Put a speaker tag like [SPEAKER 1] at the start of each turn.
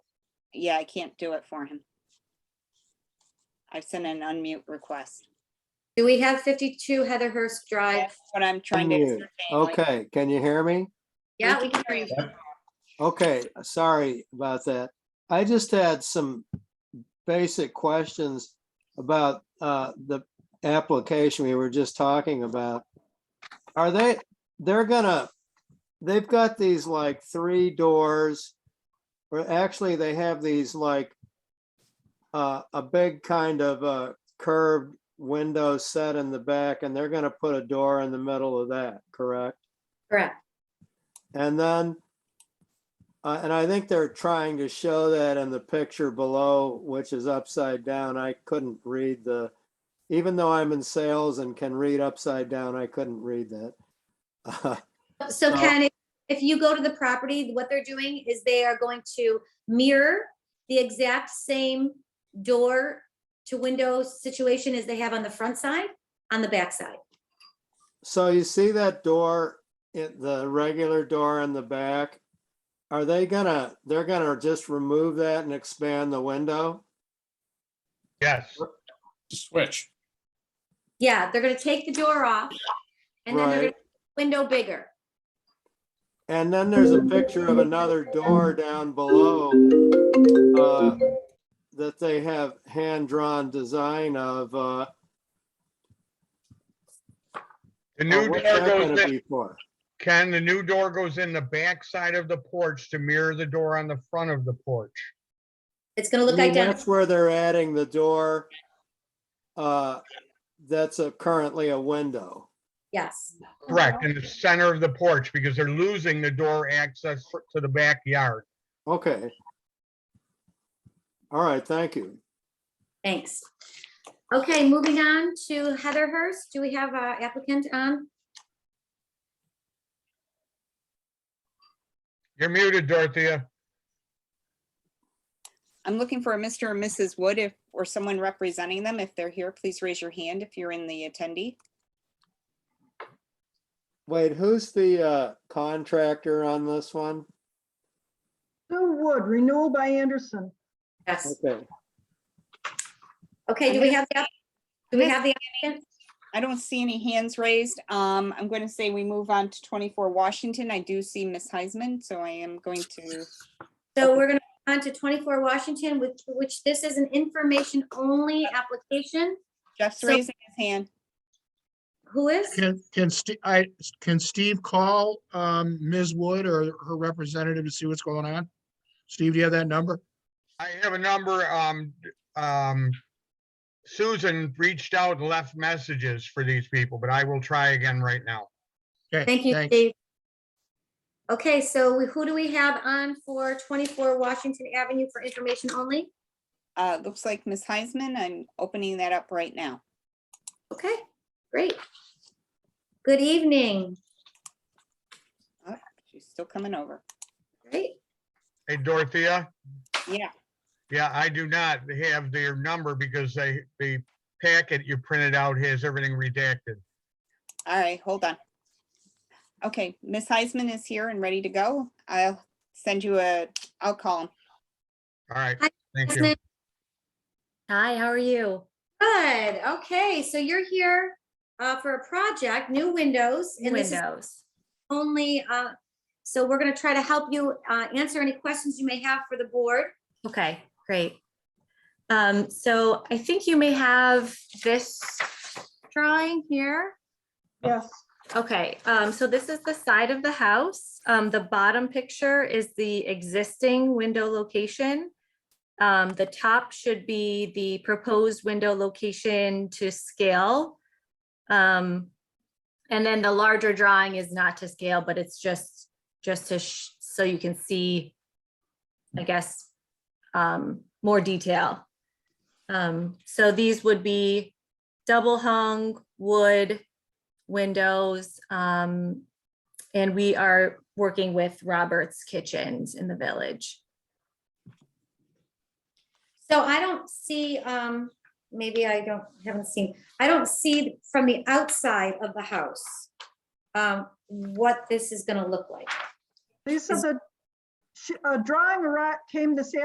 [SPEAKER 1] yeah, I can't do it for him. I've sent an unmute request.
[SPEAKER 2] Do we have fifty-two Heatherhurst Drive?
[SPEAKER 1] That's what I'm trying to
[SPEAKER 3] Unmute.
[SPEAKER 1] ascertain. like-
[SPEAKER 3] Okay, can you hear me?
[SPEAKER 2] Yeah, we can hear you.
[SPEAKER 3] Okay, sorry about that. I just had some basic questions about uh, the application we were just talking about. Are they, they're gonna, they've got these like three doors, or actually they have these like uh, a big kind of uh, curved window set in the back, and they're gonna put a door in the middle of that, correct?
[SPEAKER 2] Correct.
[SPEAKER 3] And then, uh, and I think they're trying to show that in the picture below, which is upside down. I couldn't read the, even though I'm in sales and can read upside down, I couldn't read that. Uh,
[SPEAKER 2] So
[SPEAKER 3] Uh,
[SPEAKER 2] Ken, if- if you go to the property, what they're doing is they are going to mirror the exact same door to window situation as they have on the front side, on the back side.
[SPEAKER 3] So you see that door, it- the regular door in the back? Are they gonna, they're gonna just remove that and expand the window?
[SPEAKER 4] Yes,
[SPEAKER 5] Switch.
[SPEAKER 2] Yeah, they're gonna take the door off and then they're
[SPEAKER 3] Right.
[SPEAKER 2] gonna window bigger.
[SPEAKER 3] And then there's a picture of another door down below uh, that they have hand-drawn design of. uh,
[SPEAKER 4] the
[SPEAKER 3] uh,
[SPEAKER 4] new door
[SPEAKER 3] what's that
[SPEAKER 4] goes
[SPEAKER 3] gonna
[SPEAKER 4] in,
[SPEAKER 3] be for?
[SPEAKER 4] Ken, the new door goes in the back side of the porch to mirror the door on the front of the porch.
[SPEAKER 2] It's gonna
[SPEAKER 3] I
[SPEAKER 2] look
[SPEAKER 3] mean,
[SPEAKER 2] identical.
[SPEAKER 3] That's where they're adding the door uh, that's a- currently a window.
[SPEAKER 2] Yes,
[SPEAKER 4] Correct, in the center of the porch because they're losing the door access for- to the backyard.
[SPEAKER 3] Okay. All right, thank you.
[SPEAKER 2] thanks. Okay, moving on to Heatherhurst. Do we have a applicant um? on?
[SPEAKER 4] You're muted, Dorothea.
[SPEAKER 1] I'm looking for a Mr. or Mrs. Wood if, or someone representing them. If they're here, please raise your hand if you're in the attendee.
[SPEAKER 3] Wait, who's the uh, contractor on this one?
[SPEAKER 6] Bill Wood, renewal by Anderson.
[SPEAKER 2] Yes.
[SPEAKER 3] Okay,
[SPEAKER 2] Okay, do we have, the app- do we have the applicant?
[SPEAKER 1] I don't see any hands raised. Um, I'm going to say we move on to 24 Washington. I do see Miss Heisman, so I am going to,
[SPEAKER 2] So we're gonna move on to twenty-four Washington, which, which this is an information-only application.
[SPEAKER 1] Jeff's
[SPEAKER 2] So-
[SPEAKER 1] raising his hand.
[SPEAKER 2] Who is?
[SPEAKER 7] Can, can Steve, I, can Steve call, um, Ms. Wood or her representative to see what's going on? Steve, do you have that number?
[SPEAKER 4] I have a number, um, um, Susan reached out and left messages for these people, but I will try again right now.
[SPEAKER 7] Okay,
[SPEAKER 2] Thank you,
[SPEAKER 7] thanks.
[SPEAKER 2] Steve. Okay, so we- who do we have on for twenty-four Washington Avenue for information only?
[SPEAKER 1] Uh, looks like Miss Heisman. I'm opening that up right now.
[SPEAKER 2] Okay, great. Good evening.
[SPEAKER 1] She's still coming over.
[SPEAKER 2] Great.
[SPEAKER 4] Hey, Dorothea?
[SPEAKER 1] Yeah.
[SPEAKER 4] Yeah, I do not have their number because they, the packet you printed out has everything redacted.
[SPEAKER 1] All right, hold on. Okay, Miss Heisman is here and ready to go. I'll send you a, I'll call him.
[SPEAKER 4] All right,
[SPEAKER 2] Hi,
[SPEAKER 4] thank you.
[SPEAKER 2] Hi, how are you? Good. Okay, so you're here uh, for a project, new windows. and this is
[SPEAKER 8] Windows.
[SPEAKER 2] Only, uh, so we're going to try to help you uh, answer any questions you may have for the board.
[SPEAKER 8] Okay, great. Um, so I think you may have this drawing here.
[SPEAKER 6] Yes,
[SPEAKER 8] Okay, um, so this is the side of the house. Um, the bottom picture is the existing window location. Um, the top should be the proposed window location to scale. Um, and then the larger drawing is not to scale, but it's just, just to, sh- so you can see, I guess, um, more detail. Um, so these would be double hung wood windows. Um, and we are working with Robert's Kitchens in the village.
[SPEAKER 2] So I don't see, um, maybe I don't, haven't seen, I don't see from the outside of the house um, what this is going to look like.
[SPEAKER 6] these are the, she- a uh, drawing arri- came this